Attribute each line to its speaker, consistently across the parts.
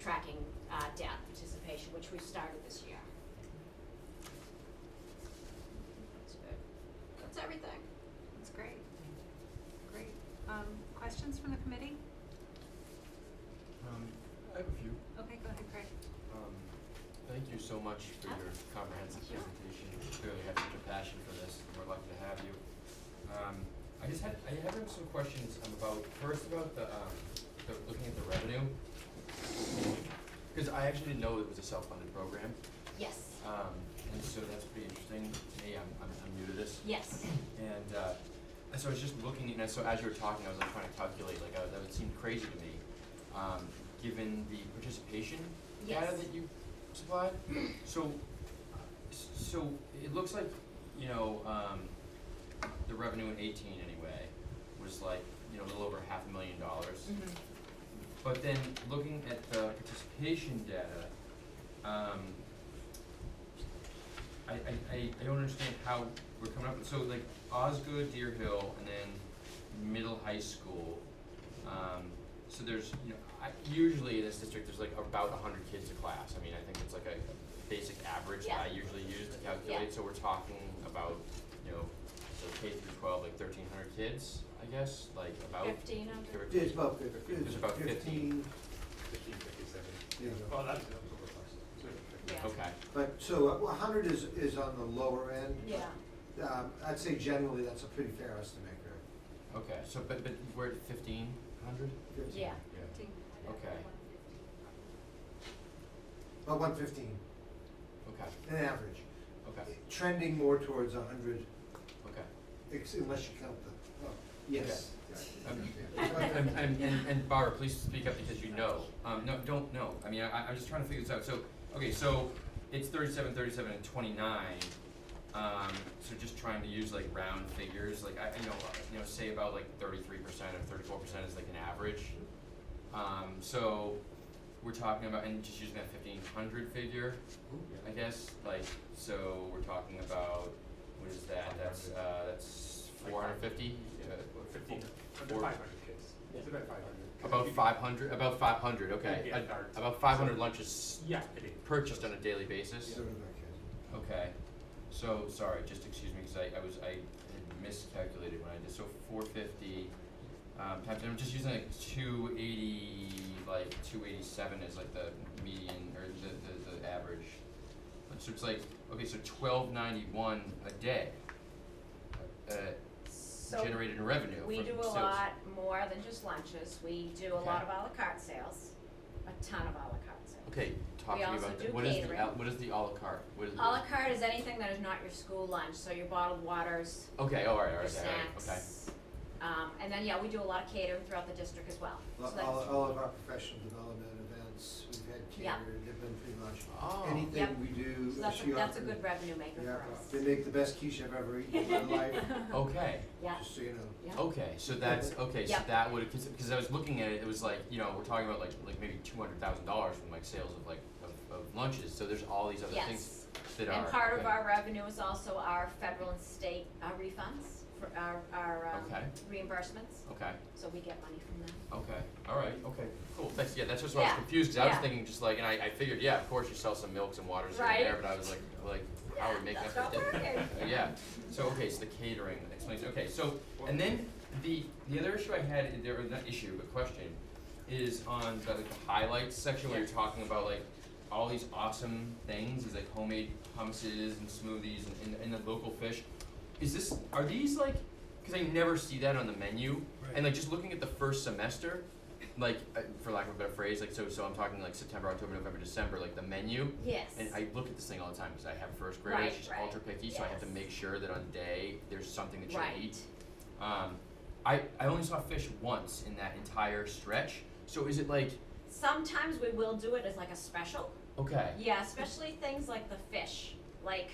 Speaker 1: tracking uh, data participation, which we started this year. That's good. That's everything.
Speaker 2: That's great. Great. Um, questions from the committee?
Speaker 3: Um, I have a few.
Speaker 2: Okay, go ahead, Craig.
Speaker 3: Um, thank you so much for your comprehensive
Speaker 1: Sure.
Speaker 3: presentation. You clearly have such a passion for this, and we're lucky to have you. Um, I just had, I have some questions um, about, first about the, um, the, looking at the revenue. Cause I actually didn't know it was a self-funded program,
Speaker 1: Yes,
Speaker 3: um, and so that's pretty interesting to me. I'm, I'm, I'm new to this.
Speaker 1: yes.
Speaker 3: And uh, and so I was just looking, and so as you were talking, I was like trying to calculate, like, I- that would seem crazy to me, um, given the participation data
Speaker 1: Yes.
Speaker 3: that you supplied. So, uh, s- so it looks like, you know, um, the revenue in eighteen anyway was like, you know, a little over half a million dollars. But then looking at the participation data, um, I, I, I, I don't understand how we're coming up, with so like Osgood, Deer Hill, and then middle high school. Um, so there's, you know, I, usually in this district, there's like about a hundred kids a class, I mean, I think it's like a a basic average that I
Speaker 1: Yeah.
Speaker 3: usually use to calculate, so we're talking about, you know, so K through twelve, like thirteen hundred kids, I guess, like about.
Speaker 1: Fifteen hundred?
Speaker 3: correct?
Speaker 4: Yeah, it's about fifteen.
Speaker 3: It's about 15.
Speaker 5: Fifteen fifty-seven.
Speaker 4: Yeah.
Speaker 5: Oh, that's, that was a little closer.
Speaker 1: Yeah.
Speaker 3: Okay.
Speaker 4: But, so uh, a hundred is, is on the lower end.
Speaker 1: Yeah,
Speaker 4: Um, I'd say generally that's a pretty fair estimate, Greg.
Speaker 3: Okay, so but but we're at fifteen hundred?
Speaker 4: Fifteen.
Speaker 1: yeah.
Speaker 3: Yeah.
Speaker 2: Dean.
Speaker 3: Okay,
Speaker 4: About one fifteen,
Speaker 3: okay,
Speaker 4: an average,
Speaker 3: okay,
Speaker 4: trending more towards a hundred,
Speaker 3: okay.
Speaker 4: ex- unless you count the, oh, yes.
Speaker 3: Um,
Speaker 4: Yeah.
Speaker 3: And and and and Barbara, please speak up because you know, um no, don't know, I mean, I I- I'm just trying to figure this out, so, okay, so it's thirty-seven, thirty-seven and twenty-nine. Um so just trying to use like round figures, like I I know, uh, you know, say about like thirty-three percent or thirty-four percent is like an average. Um so we're talking about, and just using that fifteen hundred figure, I guess, like, so we're talking about, what is that, that's, uh, that's four hundred fifty, uh,
Speaker 5: Fifteen,
Speaker 3: Four-
Speaker 5: under five hundred kids, it's about five hundred.
Speaker 3: about five hundred, about five hundred, okay,
Speaker 5: Yeah,
Speaker 3: A-
Speaker 5: darn.
Speaker 3: about five hundred lunches
Speaker 5: Yeah, it is.
Speaker 3: purchased on a daily basis,
Speaker 4: Sort of like uh, a-
Speaker 3: okay. So, sorry, just excuse me, cause I, I was, I had miscalculated when I did, so four fifty, um, times, I'm just using like two eighty, like two eighty-seven is like the median, or the, the, the average. And So it's like, okay, so twelve ninety-one a day, uh,
Speaker 6: So
Speaker 3: generated in revenue
Speaker 6: we
Speaker 3: from
Speaker 6: do a
Speaker 3: sales.
Speaker 6: lot more than just lunches. We do a lot
Speaker 3: Okay.
Speaker 6: of à la carte sales, a ton of à la carte sales.
Speaker 3: Okay, talking
Speaker 6: also
Speaker 3: about that,
Speaker 6: do
Speaker 3: what is the,
Speaker 6: catering.
Speaker 3: al- what is the à la carte, what is
Speaker 6: À la carte is anything that is not your school lunch, so your bottled waters,
Speaker 3: Okay, all right, all right, all
Speaker 6: your
Speaker 3: right, okay.
Speaker 6: snacks. Um, and then, yeah, we do a lot of catering throughout the district as well. So
Speaker 4: All,
Speaker 6: that's-
Speaker 4: all- all of our professional development events, we've had
Speaker 6: Yeah.
Speaker 4: catered, they've been pretty much,
Speaker 3: Oh.
Speaker 6: Yep.
Speaker 4: anything we do,
Speaker 6: So that's, a-
Speaker 4: she
Speaker 6: that's a
Speaker 4: offered-
Speaker 6: good revenue maker
Speaker 4: Yeah,
Speaker 6: for us.
Speaker 4: they make the best quiche I've ever eaten in my life,
Speaker 3: Okay,
Speaker 6: Yeah,
Speaker 4: just so you know.
Speaker 6: yeah.
Speaker 3: okay, so that's, okay, so
Speaker 6: Yeah.
Speaker 3: that would, cause, cause I was looking at it, it was like, you know, we're talking about like, like maybe two hundred thousand dollars from like sales of like, of, of lunches, so there's all these other things
Speaker 6: Yes.
Speaker 3: that are,
Speaker 6: And part of
Speaker 3: okay.
Speaker 6: our revenue is also our federal and state uh, refunds for our, our um,
Speaker 3: Okay.
Speaker 6: reimbursements.
Speaker 3: Okay,
Speaker 6: So we get money from them.
Speaker 3: okay, all right, okay, cool, thanks, yeah, that's just why I was
Speaker 6: Yeah,
Speaker 3: confused, cause I was
Speaker 6: yeah.
Speaker 3: thinking just like, and I, I figured, yeah, of course you sell some milks and waters here and
Speaker 6: Right.
Speaker 3: there, but I was like, like, how would make that?
Speaker 6: That's not
Speaker 3: fit?
Speaker 6: working.
Speaker 3: Uh, Yeah, so, okay, so the catering explains, okay, so, and then the, the other issue I had, in there, or not issue, but question, is on the, like, the highlights section where you're talking about like, all these awesome things, these like homemade hummuses and smoothies and, and, and the local fish. Is this, are these like, cause I never see that on the menu, and like just looking at the first semester, like, uh, for lack of a better phrase, like, so, so I'm talking like September, October, November, December, like the menu,
Speaker 6: Yes.
Speaker 3: and I look at this thing all the time because I have first graders,
Speaker 6: Right,
Speaker 3: she's
Speaker 6: right,
Speaker 3: ultra picky, so I have to
Speaker 6: yes.
Speaker 3: make sure that on day there's something that she'll
Speaker 6: Right.
Speaker 3: eat. Um, I I only saw fish once in that entire stretch. So is it like
Speaker 6: Sometimes we will do it as like a special.
Speaker 3: okay?
Speaker 6: Yeah, especially things like the fish, like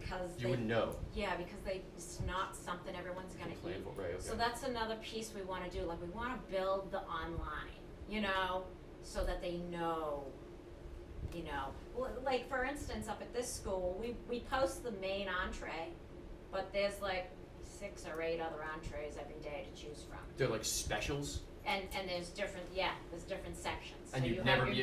Speaker 6: because
Speaker 3: You
Speaker 6: they
Speaker 3: wouldn't know.
Speaker 6: yeah because they it's not something everyone's gonna
Speaker 3: Plan
Speaker 6: eat.
Speaker 3: for- right, okay.
Speaker 6: So that's another piece we want to do. Like we want to build the online, you know, so that they know, you know, L- like for instance, up at this school, we we post the main entree, but there's like six or eight other entrees every day to choose from.
Speaker 3: They're like specials,
Speaker 6: And and there's different yeah, there's different sections.
Speaker 3: and
Speaker 6: so
Speaker 3: you'd
Speaker 6: you
Speaker 3: never
Speaker 6: have your
Speaker 3: be